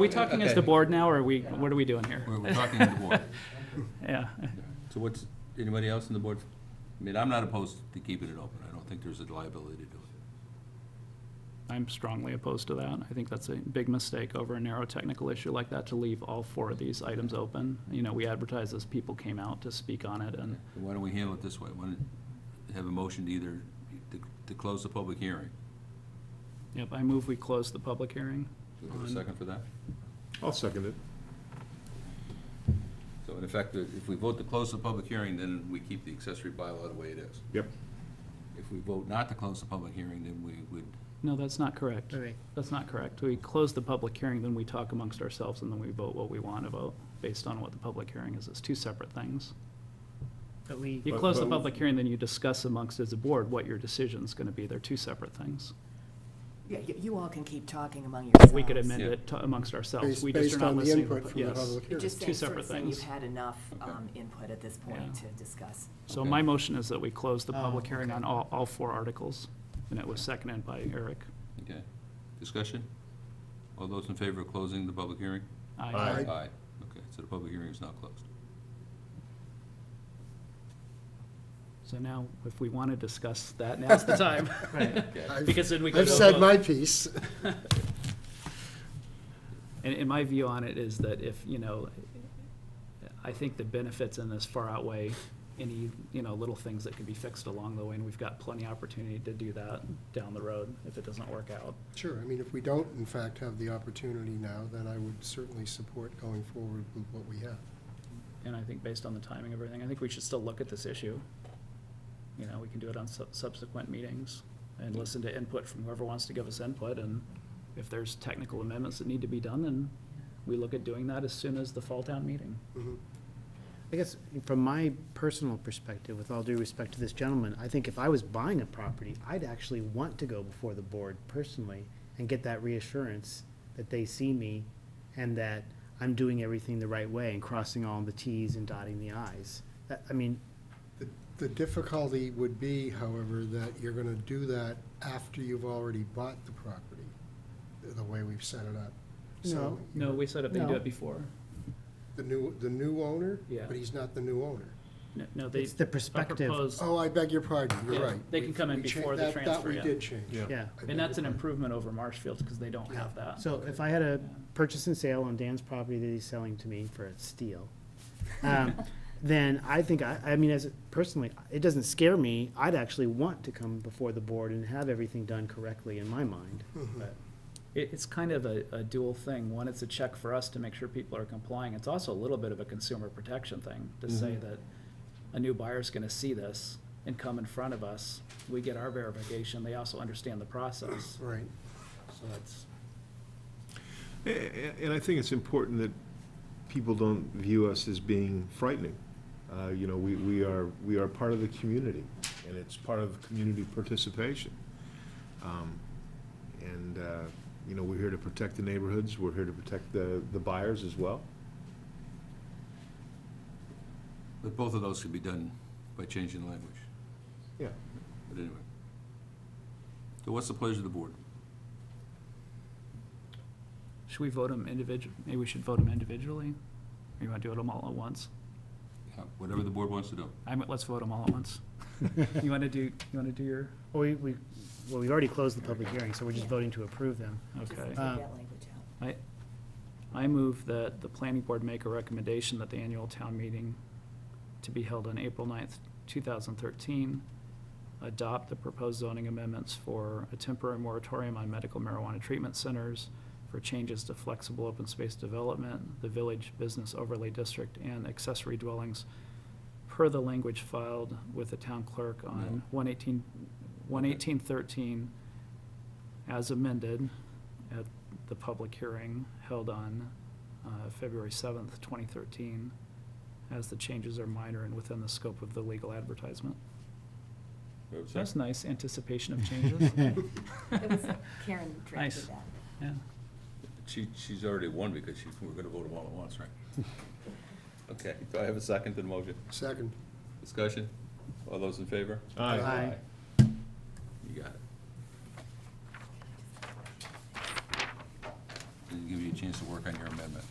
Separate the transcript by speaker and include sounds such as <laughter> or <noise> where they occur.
Speaker 1: Are we talking as the board now, or are we, what are we doing here?
Speaker 2: We're, we're talking to the board.
Speaker 1: <laughs> Yeah,
Speaker 2: So what's, anybody else in the board? I mean, I'm not opposed to keeping it open. I don't think there's a liability to it.
Speaker 1: I'm strongly opposed to that. I think that's a big mistake over a narrow technical issue like that, to leave all four of these items open. You know, we advertised this, people came out to speak on it, and
Speaker 2: Why don't we handle it this way? Why don't we have a motion to either, to, to close the public hearing?
Speaker 1: Yep, I move we close the public hearing.
Speaker 2: Do we have a second for that?
Speaker 3: I'll second it.
Speaker 2: So in effect, if we vote to close the public hearing, then we keep the accessory bylaw the way it is.
Speaker 3: Yep.
Speaker 2: If we vote not to close the public hearing, then we would,
Speaker 1: No, that's not correct.
Speaker 4: All right.
Speaker 1: That's not correct. We close the public hearing, then we talk amongst ourselves, and then we vote what we want to vote, based on what the public hearing is. It's two separate things.
Speaker 4: But we,
Speaker 1: You
Speaker 3: But-
Speaker 1: close the
Speaker 3: but-
Speaker 1: public hearing, then you discuss amongst as a board what your decision's gonna be. They're two separate things.
Speaker 5: Yeah, you, you all can keep talking among yourselves.
Speaker 1: We could amend
Speaker 2: Yeah.
Speaker 1: it to- amongst ourselves.
Speaker 6: Based
Speaker 1: We just are
Speaker 6: based
Speaker 1: not
Speaker 6: on the
Speaker 1: listening. to
Speaker 6: input
Speaker 1: pu-
Speaker 6: from the
Speaker 1: yes.
Speaker 6: public
Speaker 5: You're
Speaker 6: hears.
Speaker 5: just
Speaker 1: Two
Speaker 5: saying, sort of
Speaker 1: separate
Speaker 5: saying you've
Speaker 1: things.
Speaker 5: had enough
Speaker 2: Okay.
Speaker 5: um, input at this
Speaker 1: Yeah.
Speaker 5: point to discuss.
Speaker 1: So
Speaker 2: Okay.
Speaker 1: my motion is that we close the
Speaker 4: Oh,
Speaker 1: public hearing
Speaker 4: okay.
Speaker 1: on all, all four articles, and it was seconded by Eric.
Speaker 2: okay. Discussion? All those in favor of closing the public hearing?
Speaker 1: I
Speaker 3: Aye.
Speaker 2: Aye. Okay, so the public hearing is now closed.
Speaker 1: So now, if we wanna discuss that, now's the time. <laughs>
Speaker 6: I've-
Speaker 1: Because then we could.
Speaker 6: I've
Speaker 1: go
Speaker 6: said
Speaker 1: vote.
Speaker 6: my piece.
Speaker 1: And, and my view on it is that if, you know, I think the benefits in this far outweigh any, you know, little things that could be fixed along the way, and we've got plenty of opportunity to do that down the road if it doesn't work out.
Speaker 6: Sure, I mean, if we don't in fact have the opportunity now, then I would certainly support going forward with what we have.
Speaker 1: And I think based on the timing of everything, I think we should still look at this issue. You know, we can do it on sub- subsequent meetings and listen to input from whoever wants to give us input, and if there's technical amendments that need to be done, then we look at doing that as soon as the fall town meeting.
Speaker 4: I guess, from my personal perspective, with all due respect to this gentleman, I think if I was buying a property, I'd actually want to go before the board personally and get that reassurance that they see me and that I'm doing everything the right way and crossing all the Ts and dotting the Is. That, I mean,
Speaker 6: The- The difficulty would be, however, that you're gonna do that after you've already bought the property, the way we've set it up. So
Speaker 4: No.
Speaker 1: No, we set up, they do
Speaker 4: No.
Speaker 1: it before.
Speaker 6: The new, the new owner?
Speaker 1: Yeah.
Speaker 6: But he's not the new owner.
Speaker 1: No, No, they.
Speaker 4: it's the
Speaker 1: a
Speaker 4: perspective,
Speaker 1: proposed-
Speaker 6: Oh, I beg your pardon, you're
Speaker 1: Yeah,
Speaker 6: right.
Speaker 1: they can come in
Speaker 6: We cha-
Speaker 1: before the
Speaker 6: that-
Speaker 1: transfer, yeah.
Speaker 6: That we did change.
Speaker 3: Yeah.
Speaker 4: yeah.
Speaker 6: I beg
Speaker 1: And that's an
Speaker 6: your pardon.
Speaker 1: improvement over Marshfield's, because they don't have that.
Speaker 4: So if I had a purchase and sale on Dan's property that he's selling to me for a steal, um, then I think, I, I mean, as, a- personally, it doesn't scare me. I'd actually want to come before the board and have everything done correctly in my mind. But
Speaker 1: It, it's kind of a, a dual thing. One, it's a check for us to make sure people are complying. It's also a little bit of a consumer protection thing to say that a new buyer's gonna see this and come in front of us. We get our verification. They also understand the process.
Speaker 6: Right.
Speaker 1: So it's,
Speaker 3: A- a- And I think it's important that people don't view us as being frightening. Uh, You know, we, we are, we are part of the community, and it's part of community participation. Um, And, uh, you know, we're here to protect the neighborhoods, we're here to protect the, the buyers as well.
Speaker 2: But both of those could be done by changing language.
Speaker 3: Yeah.
Speaker 2: But anyway. So what's the pleasure of the board?
Speaker 1: should we vote them individually? Maybe we should vote them individually? Or you wanna do it 'em all at once?
Speaker 2: Uh, Whatever the board wants to do.
Speaker 1: I'm, let's vote them all at once. You wanna do, you wanna do your,
Speaker 4: We, we, well, we've already closed the public hearing, so we're just voting to approve them.
Speaker 5: Just
Speaker 1: okay.
Speaker 5: take that language out.
Speaker 1: I, I move that the planning board make a recommendation that the annual town meeting to be held on April 9th, two thousand thirteen, adopt the proposed zoning amendments for a temporary moratorium on medical marijuana treatment centers, for changes to flexible open space development, the village business overlay district, and accessory dwellings, per the language filed with the town clerk on 118 11813 as amended at the public hearing held on uh, February 7th, 2013, as the changes are minor and within the scope of the legal advertisement. That's nice anticipation of changes.
Speaker 5: <laughs> It <laughs> was Karen
Speaker 1: Nice.
Speaker 5: drafted that.
Speaker 1: <laughs> Yeah.
Speaker 2: She, she's already won because she, we're gonna vote them all at once, right? Okay, do I have a second to the motion?
Speaker 6: Second.
Speaker 2: Discussion? All those in favor?
Speaker 4: Aye.
Speaker 2: You got it. And give you a chance to work on your amendment.